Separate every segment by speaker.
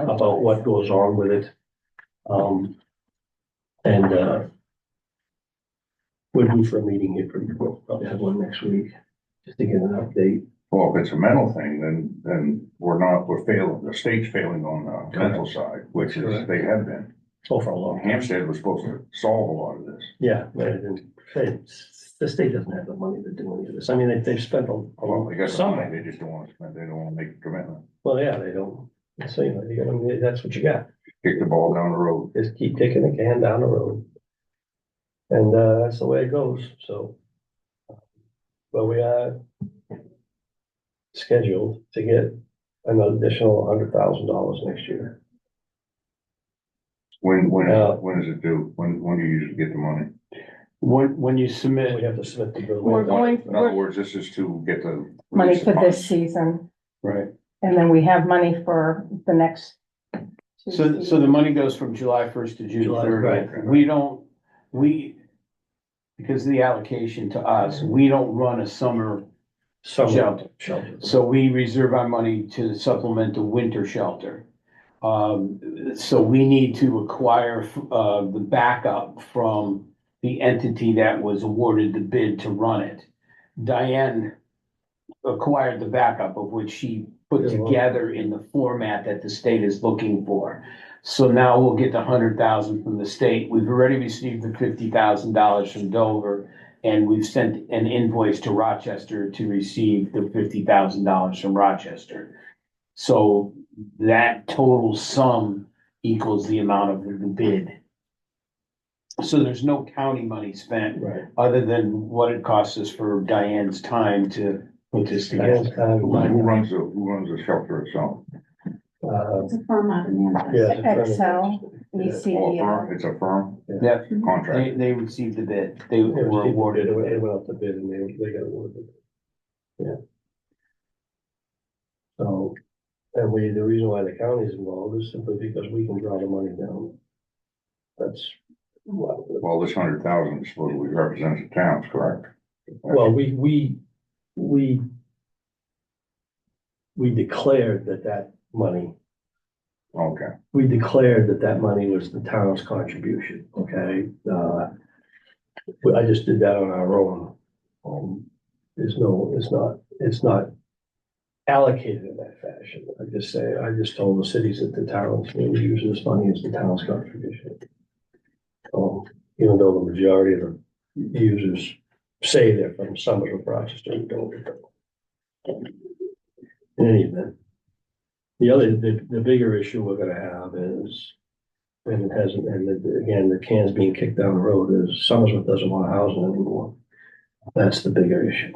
Speaker 1: about what goes on with it. Um, and, uh, we're due for a meeting here pretty quick. I'll have one next week, just to get an update.
Speaker 2: Well, if it's a mental thing, then, then we're not, we're failing, the state's failing on the mental side, which is,
Speaker 1: Correct.
Speaker 2: they have been.
Speaker 1: Oh, for a long time.
Speaker 2: Hampstead was supposed to solve a lot of this.
Speaker 1: Yeah, but it didn't- it's- the state doesn't have the money to do any of this. I mean, they, they've spent a.
Speaker 2: Well, they got some money,
Speaker 1: Some,
Speaker 2: they just don't wanna spend, they don't wanna make a commitment,
Speaker 1: well, yeah, they don't, so, you know, you gotta, that's what you got.
Speaker 2: kick the ball down the road.
Speaker 1: Just keep kicking the can down the road. And, uh, that's the way it goes, so. But we are scheduled to get an additional hundred thousand dollars next year.
Speaker 2: When, when,
Speaker 1: Yeah.
Speaker 2: when is it due? When, when do you usually get the money?
Speaker 3: When, when you
Speaker 1: We
Speaker 3: submit,
Speaker 1: have to submit the bill.
Speaker 4: We're going-
Speaker 2: In other words, this is to get the.
Speaker 4: money for
Speaker 2: funds.
Speaker 4: this season,
Speaker 2: Right,
Speaker 4: and then we have money for the next. two
Speaker 3: so, so the
Speaker 4: seasons.
Speaker 3: money goes from July first to June
Speaker 1: July,
Speaker 3: thirtieth.
Speaker 2: right.
Speaker 3: We don't, we, because of the allocation to us, we don't run a summer
Speaker 2: Oh.
Speaker 1: Summer
Speaker 3: shelter.
Speaker 1: shelter.
Speaker 3: So we reserve our money to supplement the winter shelter. Um, so we need to acquire, uh, the backup from the entity that was awarded the bid to run it. Diane acquired the backup of which she put
Speaker 1: Yeah, well-
Speaker 3: together in the format that the state is looking for. So now we'll get the hundred thousand from the state. We've already received the fifty thousand dollars from Dover. And we've sent an invoice to Rochester to receive the fifty thousand dollars from Rochester. So that total sum equals the amount of the bid. So there's no county money spent
Speaker 1: Right.
Speaker 3: other than what it costs us for Diane's time to put this
Speaker 1: Diane's time,
Speaker 3: together.
Speaker 2: who who runs the, who runs the shelter itself?
Speaker 1: uh,
Speaker 5: It's a firm out of Manchester.
Speaker 1: yeah, it's very-
Speaker 4: Excel, E
Speaker 2: Oh, a
Speaker 4: ECDL.
Speaker 2: firm? It's a firm
Speaker 3: Yeah, they,
Speaker 2: contract,
Speaker 3: they received the bid. They
Speaker 1: They
Speaker 3: were
Speaker 1: received the
Speaker 3: awarded
Speaker 1: bid,
Speaker 3: the
Speaker 1: They went- they
Speaker 3: bid.
Speaker 1: went out to bid and they, they got awarded. it. Yeah. So, and we, the reason why the county is involved is simply because we can draw the money down. That's, well,
Speaker 2: well, this hundred thousand supposedly represents the towns, correct?
Speaker 1: well, we, we, we we declared that that money,
Speaker 2: Okay.
Speaker 1: we declared that that money was the town's contribution, okay? Uh, but I just did that on our own. Um, there's no, it's not, it's not allocated in that fashion. I just say, I just told the cities that the towns will use this money as the town's contribution. Um, even though the majority of the users say they're from Summit or Rochester and Dover. In any event, the other, the, the bigger issue we're gonna have is, and it hasn't, and it- again, the can's being kicked down the road is Somersworth doesn't want housing anymore. That's the bigger issue.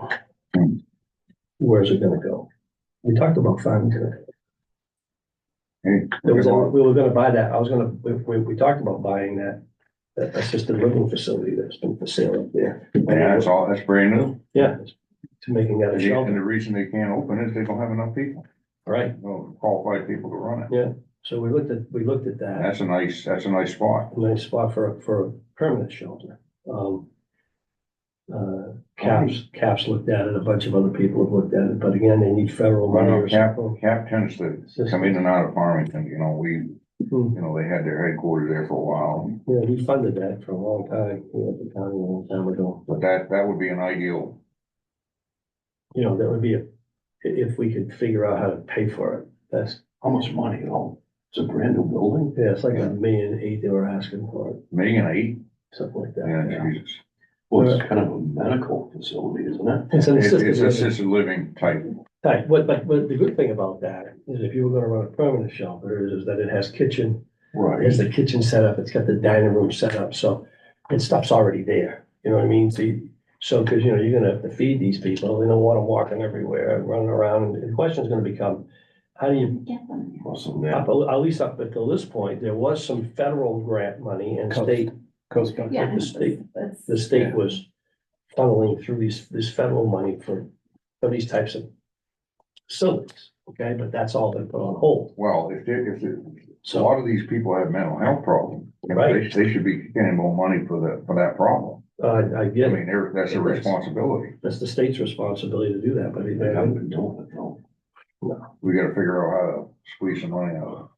Speaker 2: Hmm.
Speaker 1: Where's it gonna go? We talked about Farmington.
Speaker 2: Hey,
Speaker 1: There was, a-
Speaker 2: well,
Speaker 1: we were gonna buy that, I was gonna, we, we, we talked about buying that, that assisted living facility that's been for sale up there.
Speaker 2: Yeah, that's all, that's brand new.
Speaker 1: Yeah, to making that a
Speaker 2: And the- and
Speaker 1: shelter,
Speaker 2: the reason they can't open is they don't have enough people,
Speaker 1: right?
Speaker 2: no qualified people to run it.
Speaker 1: So we looked at, we looked at that.
Speaker 2: And that's a nice, that's a nice spot.
Speaker 1: a nice spot for, a- for a permanent shelter. Um, uh, Caps, Caps looked at it, a bunch of other people have looked at it, but again, they need federal money
Speaker 2: Well,
Speaker 1: or
Speaker 2: no, Cap,
Speaker 1: something.
Speaker 2: Cap tends to
Speaker 1: Just-
Speaker 2: come in and out of Farmington, you know, we, you
Speaker 1: Hmm.
Speaker 2: know, they had their headquarters there for a while.
Speaker 1: Yeah, we funded that for a long time, you know, the county a long time ago.
Speaker 2: But that, that would be an ideal,
Speaker 1: You know, that would be, a i- if we could figure out how to pay for it, that's,
Speaker 6: How much money at all? It's a brand new building.
Speaker 1: yeah, it's like a million eight they were asking for it,
Speaker 2: million eight,
Speaker 1: something like
Speaker 2: yeah,
Speaker 1: that.
Speaker 2: Jesus.
Speaker 6: Well, it's kind of a medical facility, isn't it?
Speaker 1: It's an
Speaker 2: It's
Speaker 1: assisted
Speaker 2: it's
Speaker 1: living.
Speaker 2: assisted living type,
Speaker 1: Right, but, but, but the good thing about that is if you were gonna run a permanent shelter is that it has kitchen, It
Speaker 6: Right.
Speaker 1: has the kitchen set up, it's got the dining room set up, so, and stuff's already there, you know what I mean? So, you- so, cause you know, you're gonna have to feed these people, they don't want them walking everywhere, and running around, and the question's gonna become, how do you,
Speaker 5: Get them there.
Speaker 6: Well, so now-
Speaker 1: up at least up until this point, there was some federal grant money and
Speaker 3: Coast-
Speaker 1: state,
Speaker 3: Coast Guard.
Speaker 5: Yeah.
Speaker 1: the state,
Speaker 5: That's-
Speaker 1: the state was funneling through these, this federal money for, for these types of facilities, okay, but that's all been put on hold,
Speaker 2: well, if, they- if, they- a
Speaker 1: so,
Speaker 2: lot of these people have mental health problems. you know, They, they should be getting more money for the, for that problem.
Speaker 1: uh, I
Speaker 2: I
Speaker 1: get it,
Speaker 2: mean, they're- that's a
Speaker 1: It is.
Speaker 2: responsibility.
Speaker 1: that's the state's responsibility to do that, but
Speaker 6: They
Speaker 1: they,
Speaker 6: haven't been doing it though.
Speaker 2: We gotta figure out how to squeeze some money out.